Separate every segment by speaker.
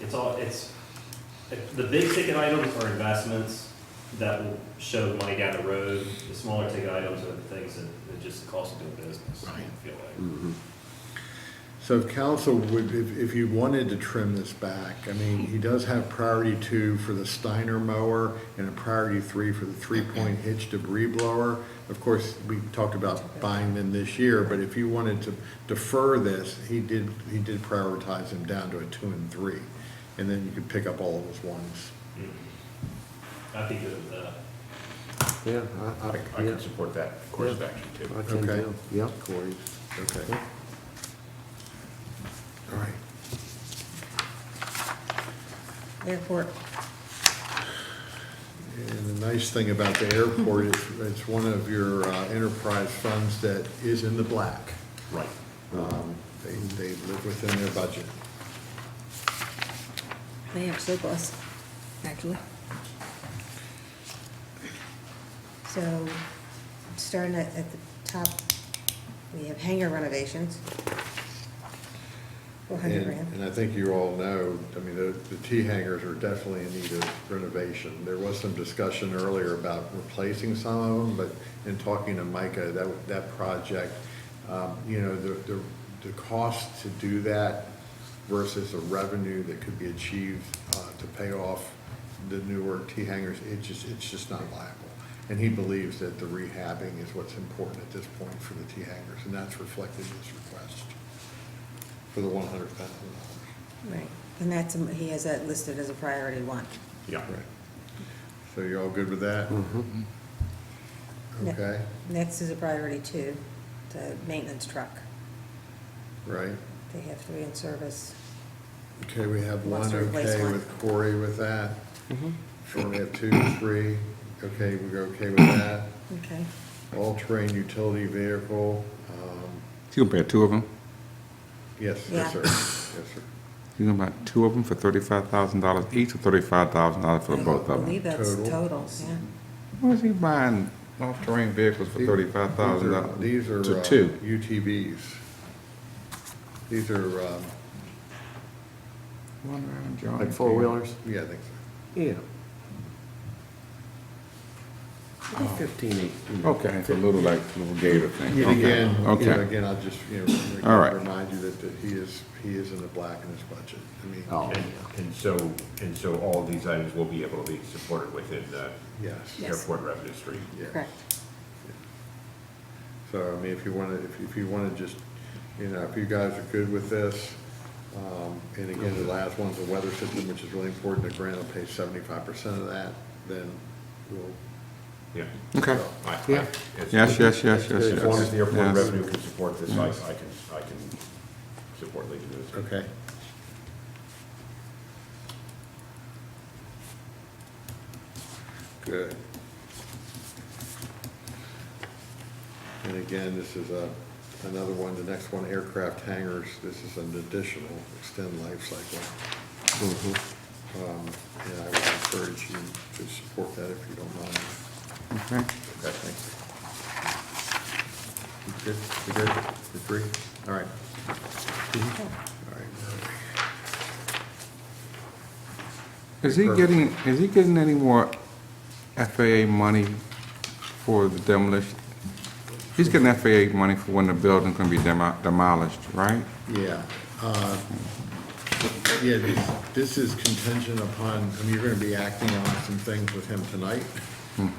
Speaker 1: it's all, it's, the big ticket items are investments that will show money down the road. The smaller ticket items are the things that, that just cost doing business, I
Speaker 2: Right.
Speaker 1: feel like.
Speaker 2: So if council would, if, if you wanted to trim this back, I mean, he does have priority two for the Steiner mower and a priority three for the three-point hitch debris blower. Of course, we talked about buying them this year, but if you wanted to defer this, he did, he did prioritize them down to a two and three. And then you could pick up all of his ones.
Speaker 1: I'd be good with that.
Speaker 3: Yeah, I,
Speaker 4: I
Speaker 3: I,
Speaker 4: I
Speaker 3: yeah,
Speaker 4: could support that course of action too.
Speaker 3: I can
Speaker 2: Okay.
Speaker 3: too, yeah, Corey.
Speaker 2: Okay.
Speaker 3: Yeah.
Speaker 2: All right.
Speaker 5: Airport.
Speaker 2: And the nice thing about the airport is it's one of your uh, enterprise funds that is in the black.
Speaker 1: Right.
Speaker 2: Um, They, they live within their budget.
Speaker 5: They have surplus, actually. So, starting at, at the top, we have hangar renovations. Four hundred
Speaker 2: And,
Speaker 5: grand.
Speaker 2: and I think you all know, I mean, the, the T hangars are definitely in need of renovation. There was some discussion earlier about replacing some of them, but in talking to Micah, that, that project, um, you know, the, the, the cost to do that versus the revenue that could be achieved, uh, to pay off the newer T hangars, it just, it's just not viable. And he believes that the rehabbing is what's important at this point for the T hangars, and that's reflected in his request for the one hundred thousand dollars.
Speaker 5: Right, and that's, um, he has that listed as a priority one.
Speaker 4: Yeah.
Speaker 2: So you're all good with that?
Speaker 3: Mm-hmm.
Speaker 5: Ne-
Speaker 2: Okay,
Speaker 5: Next is a priority two, the maintenance truck.
Speaker 2: right.
Speaker 5: They have three in service.
Speaker 2: Okay, we have one
Speaker 5: Wants to replace
Speaker 2: okay
Speaker 5: one.
Speaker 2: with Corey with that. Sure, we have two, three, okay, we're okay with that.
Speaker 5: Okay,
Speaker 2: All-terrain utility vehicle, um,
Speaker 6: You can buy two of them.
Speaker 2: yes,
Speaker 5: Yeah.
Speaker 2: yes, sir, yes, sir.
Speaker 6: You can buy two of them for thirty-five thousand dollars each, or thirty-five thousand dollars for both
Speaker 5: I
Speaker 6: of
Speaker 5: believe
Speaker 6: them.
Speaker 5: that's
Speaker 2: Total.
Speaker 5: totals, yeah.
Speaker 6: Why is he buying off-terrain vehicles for
Speaker 2: These-
Speaker 6: thirty-five thousand dollars?
Speaker 2: These are,
Speaker 6: To
Speaker 2: uh,
Speaker 6: two.
Speaker 2: UTVs. These are, um,
Speaker 6: One round, John.
Speaker 3: Like four-wheelers?
Speaker 2: yeah, I think so.
Speaker 3: Yeah. Fifteen eight.
Speaker 6: Okay, it's a little like, little gator thing.
Speaker 2: And
Speaker 6: Okay,
Speaker 2: again, you know,
Speaker 6: Okay.
Speaker 2: again, I'll just, you know,
Speaker 6: All right.
Speaker 2: remind you that, that he is, he is in the black in his budget. I mean,
Speaker 3: Oh,
Speaker 4: And, and so, and so all of these items will be able to be supported within the
Speaker 2: yes,
Speaker 5: Yeah. Yes.
Speaker 4: airport revenue stream.
Speaker 2: yes.
Speaker 5: Correct.
Speaker 2: So, I mean, if you want to, if you- if you want to just, you know, if you guys are good with this, um, and again, the last one's the weather system, which is really important, the grant will pay seventy-five percent of that, then we'll.
Speaker 4: Yeah.
Speaker 6: Okay.
Speaker 2: so,
Speaker 4: I- I-
Speaker 3: Yeah.
Speaker 4: it's-
Speaker 6: Yes, yes, yes, yes, yes.
Speaker 4: As long as the airport
Speaker 6: yes.
Speaker 4: revenue can support this, I, I can, I can support leaving this.
Speaker 2: Okay. Good. And again, this is a, another one, the next one, aircraft hangars, this is an additional extend life cycle. Um, And I would encourage you to support that if you don't mind.
Speaker 6: Okay.
Speaker 2: Okay, thank you. You Good, you good, you free? All right. All right.
Speaker 6: Is he getting, is he getting any more FAA money for the demolition? He's getting FAA money for when the building's gonna be demo- demolished, right?
Speaker 2: Yeah, uh, yeah, this, this is contingent upon, I mean, you're gonna be acting on some things with him tonight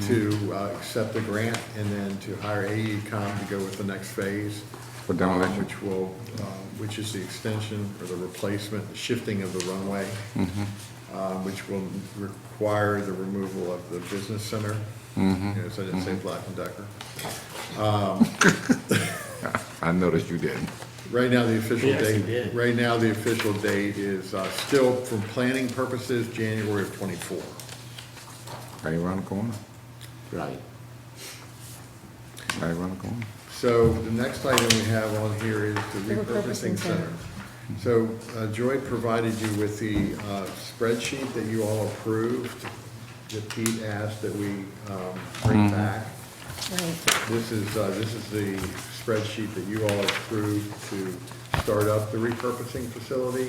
Speaker 2: to uh, accept the grant and then to hire AECom to go with the next phase.
Speaker 6: For demolition.
Speaker 2: um, Which will, uh, which is the extension or the replacement, the shifting of the runway, uh, which will require the removal of the business center. You know, so I didn't say Black and Decker.
Speaker 6: I noticed you didn't.
Speaker 2: Right now, the official
Speaker 1: Yes, you
Speaker 2: date,
Speaker 1: did.
Speaker 2: right now, the official date is uh, still, for planning purposes, January of '24.
Speaker 6: Right around the corner,
Speaker 3: right.
Speaker 6: right around the corner.
Speaker 2: So the next item we have on here is the
Speaker 5: The
Speaker 2: repurposing center.
Speaker 5: repurposing center.
Speaker 2: So uh, Joy provided you with the uh, spreadsheet that you all approved, that Pete asked that we um, bring back.
Speaker 5: Right,
Speaker 2: This is, uh, this is the spreadsheet that you all approved to start up the repurposing facility.